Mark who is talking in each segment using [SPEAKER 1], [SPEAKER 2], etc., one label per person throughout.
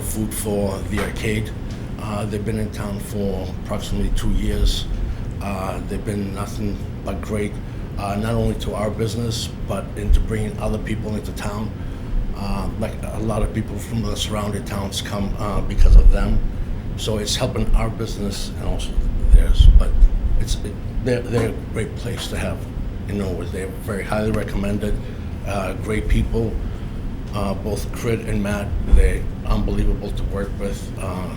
[SPEAKER 1] food for the arcade. Uh, they've been in town for approximately two years. Uh, they've been nothing but great, uh, not only to our business, but into bringing other people into town. Uh, like a lot of people from the surrounding towns come uh, because of them. So it's helping our business and also theirs. But it's it, they're, they're a great place to have in Norwood. They're very highly recommended, uh, great people uh, both Crit and Matt, they're unbelievable to work with. Uh,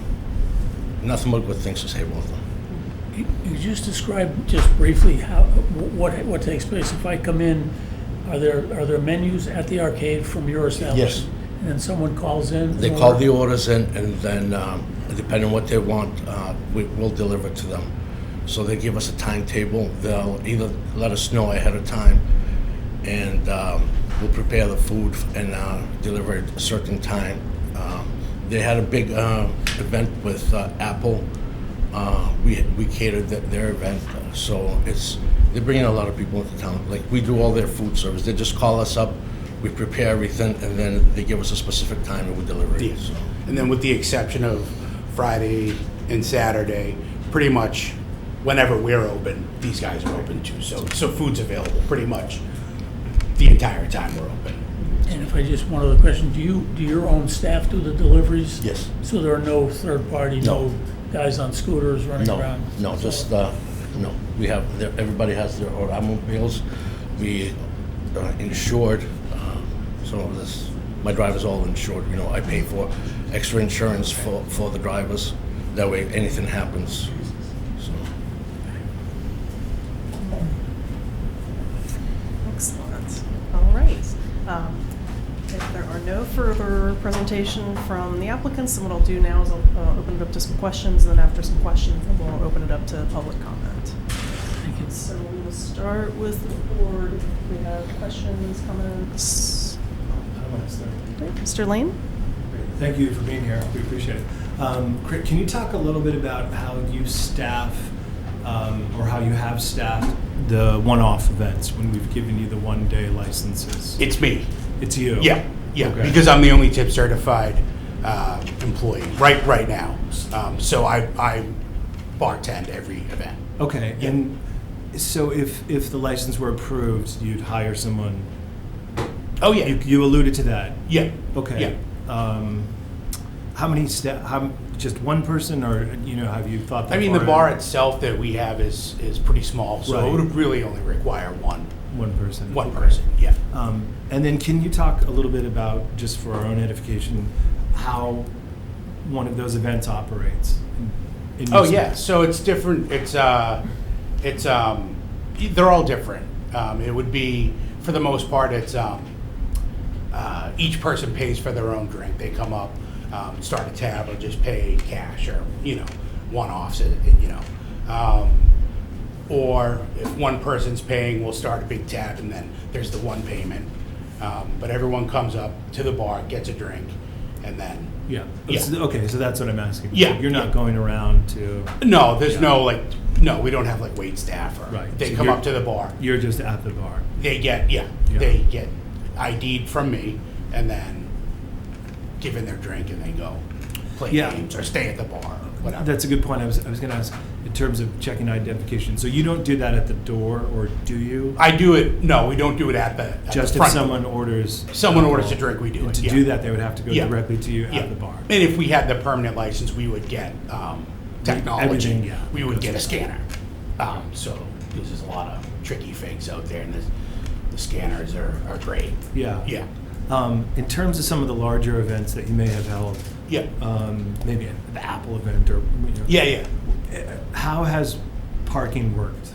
[SPEAKER 1] nothing but good things to say about them.
[SPEAKER 2] You you just described just briefly how, what, what takes place. If I come in, are there, are there menus at the arcade from your establishment? And then someone calls in?
[SPEAKER 1] They
[SPEAKER 2] and
[SPEAKER 1] call the
[SPEAKER 2] order-
[SPEAKER 1] orders in, and then um, depending on what they want, uh, we, we'll deliver to them. So they give us a timetable. They'll either let us know ahead of time, and um, we'll prepare the food and uh, deliver at a certain time. Um, they had a big uh, event with uh, Apple. Uh, we we catered th- their event, uh, so it's they're bringing a lot of people into town. Like we do all their food service. They just call us up, we prepare everything, and then they give us a specific time and we deliver it.
[SPEAKER 3] Yeah.
[SPEAKER 1] So
[SPEAKER 3] And then with the exception of Friday and Saturday, pretty much whenever we're open, these guys are open too. So, so food's available pretty much the entire time we're open.
[SPEAKER 2] And if I just, one other question, do you, do your own staff do the deliveries?
[SPEAKER 1] Yes.
[SPEAKER 2] So there are no third party,
[SPEAKER 1] No.
[SPEAKER 2] no guys on scooters running
[SPEAKER 1] no,
[SPEAKER 2] around?
[SPEAKER 1] no, just uh, no. We have their, everybody has their own automobiles. We uh, insured, uh, so this my driver's all insured. You know, I pay for extra insurance for for the drivers. That way, anything happens. So
[SPEAKER 4] Excellent. All right. Um, If there are no further presentation from the applicants, then what I'll do now is I'll uh, open it up to some questions, and then after some questions, then we'll open it up to public comment.
[SPEAKER 2] Thank you.
[SPEAKER 4] So we will start with the board. If we have questions, comments.
[SPEAKER 5] Comments there.
[SPEAKER 4] Great. Mr. Lane?
[SPEAKER 5] Great. Thank you for being here. We appreciate it. Um, Cri- Can you talk a little bit about how you staff um, or how you have staffed the one-off events when we've given you the one-day licenses?
[SPEAKER 3] It's me.
[SPEAKER 5] It's you.
[SPEAKER 3] Yeah, yeah,
[SPEAKER 5] Okay.
[SPEAKER 3] because I'm the only tip certified uh, employee right, right now. Um, So I, I bartend every event.
[SPEAKER 5] Okay, and so if, if the license were approved, you'd hire someone?
[SPEAKER 3] Oh,
[SPEAKER 5] You
[SPEAKER 3] yeah,
[SPEAKER 5] you alluded to that.
[SPEAKER 3] yeah.
[SPEAKER 5] Okay.
[SPEAKER 3] Yeah.
[SPEAKER 5] Um, How many staff, how, just one person or, you know, have you thought that
[SPEAKER 3] I mean, the
[SPEAKER 5] far
[SPEAKER 3] bar
[SPEAKER 5] in?
[SPEAKER 3] itself that we have is, is pretty small, so it
[SPEAKER 5] Right.
[SPEAKER 3] would really only require one,
[SPEAKER 5] One person.
[SPEAKER 3] one
[SPEAKER 5] Okay.
[SPEAKER 3] person, yeah.
[SPEAKER 5] Um, And then can you talk a little bit about, just for our own edification, how one of those events operates? in- in
[SPEAKER 3] Oh
[SPEAKER 5] your
[SPEAKER 3] yeah,
[SPEAKER 5] space?
[SPEAKER 3] so it's different. It's uh, it's um, they're all different. Um, it would be for the most part, it's um, uh, each person pays for their own drink. They come up, um, start a tab, or just pay cash, or you know, one offs. You know, um, or if one person's paying, we'll start a big tab, and then there's the one payment. Um, but everyone comes up to the bar, gets a drink, and then
[SPEAKER 5] Yeah.
[SPEAKER 3] Yeah.
[SPEAKER 5] So- Okay, so that's what I'm asking.
[SPEAKER 3] Yeah,
[SPEAKER 5] You're
[SPEAKER 3] yeah.
[SPEAKER 5] not going around to,
[SPEAKER 3] No, there's
[SPEAKER 5] Yeah.
[SPEAKER 3] no like, no, we don't have like wait staff or,
[SPEAKER 5] Right,
[SPEAKER 3] they
[SPEAKER 5] so
[SPEAKER 3] come
[SPEAKER 5] you're-
[SPEAKER 3] up to the bar,
[SPEAKER 5] you're just at the bar.
[SPEAKER 3] they get, yeah,
[SPEAKER 5] Yeah.
[SPEAKER 3] they get ID'd from me and then given their drink and they go play
[SPEAKER 5] Yeah.
[SPEAKER 3] games or stay at the bar, whatever.
[SPEAKER 5] That's a good point. I was, I was going to ask, in terms of checking identification, so you don't do that at the door, or do you?
[SPEAKER 3] I do it, no, we don't do it at the, at the
[SPEAKER 5] Just if
[SPEAKER 3] front.
[SPEAKER 5] someone orders.
[SPEAKER 3] Someone orders a
[SPEAKER 5] alcohol,
[SPEAKER 3] drink, we do
[SPEAKER 5] and
[SPEAKER 3] it,
[SPEAKER 5] To
[SPEAKER 3] yeah.
[SPEAKER 5] do that, they would have to go
[SPEAKER 3] Yeah.
[SPEAKER 5] directly to you
[SPEAKER 3] Yeah.
[SPEAKER 5] at the bar.
[SPEAKER 3] And if we had the permanent license, we would get, um,
[SPEAKER 5] Everything,
[SPEAKER 3] technology,
[SPEAKER 5] yeah.
[SPEAKER 3] we would get a scanner. Um, so, because there's a lot of tricky things out there and the, the scanners are, are great,
[SPEAKER 5] Yeah.
[SPEAKER 3] yeah,
[SPEAKER 5] Um, in terms of some of the larger events that you may have held,
[SPEAKER 3] yeah,
[SPEAKER 5] um, maybe the Apple event or, you know,
[SPEAKER 3] yeah, yeah.
[SPEAKER 5] how has parking worked?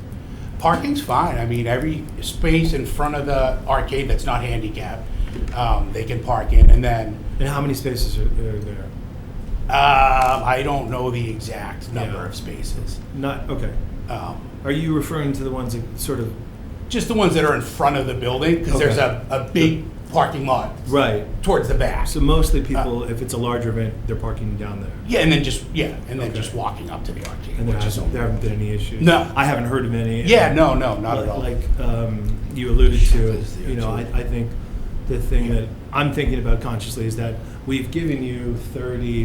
[SPEAKER 3] Parking's fine. I mean, every space in front of the arcade that's not handicapped, um, they can park in. And then
[SPEAKER 5] And how many spaces are, are there?
[SPEAKER 3] um, I don't know the exact number
[SPEAKER 5] Yeah.
[SPEAKER 3] of spaces.
[SPEAKER 5] Not, okay.
[SPEAKER 3] Um,
[SPEAKER 5] Are you referring to the ones that sort of,
[SPEAKER 3] just the ones that are in front of the building because there's
[SPEAKER 5] Okay.
[SPEAKER 3] a, a big parking lot
[SPEAKER 5] right? Uh,
[SPEAKER 3] towards the back.
[SPEAKER 5] So mostly people, if it's a larger event, they're parking down there.
[SPEAKER 3] yeah, and then just yeah, and then
[SPEAKER 5] Okay.
[SPEAKER 3] just walking up to the arcade,
[SPEAKER 5] And there
[SPEAKER 3] which is
[SPEAKER 5] hasn't, there haven't been any issues?
[SPEAKER 3] No.
[SPEAKER 5] I haven't heard of any.
[SPEAKER 3] yeah, no, no, not
[SPEAKER 5] like,
[SPEAKER 3] at all.
[SPEAKER 5] like, um, you alluded to,
[SPEAKER 1] Is there
[SPEAKER 5] you know, I,
[SPEAKER 1] too?
[SPEAKER 5] I think the thing that I'm thinking about consciously is that we've given you 30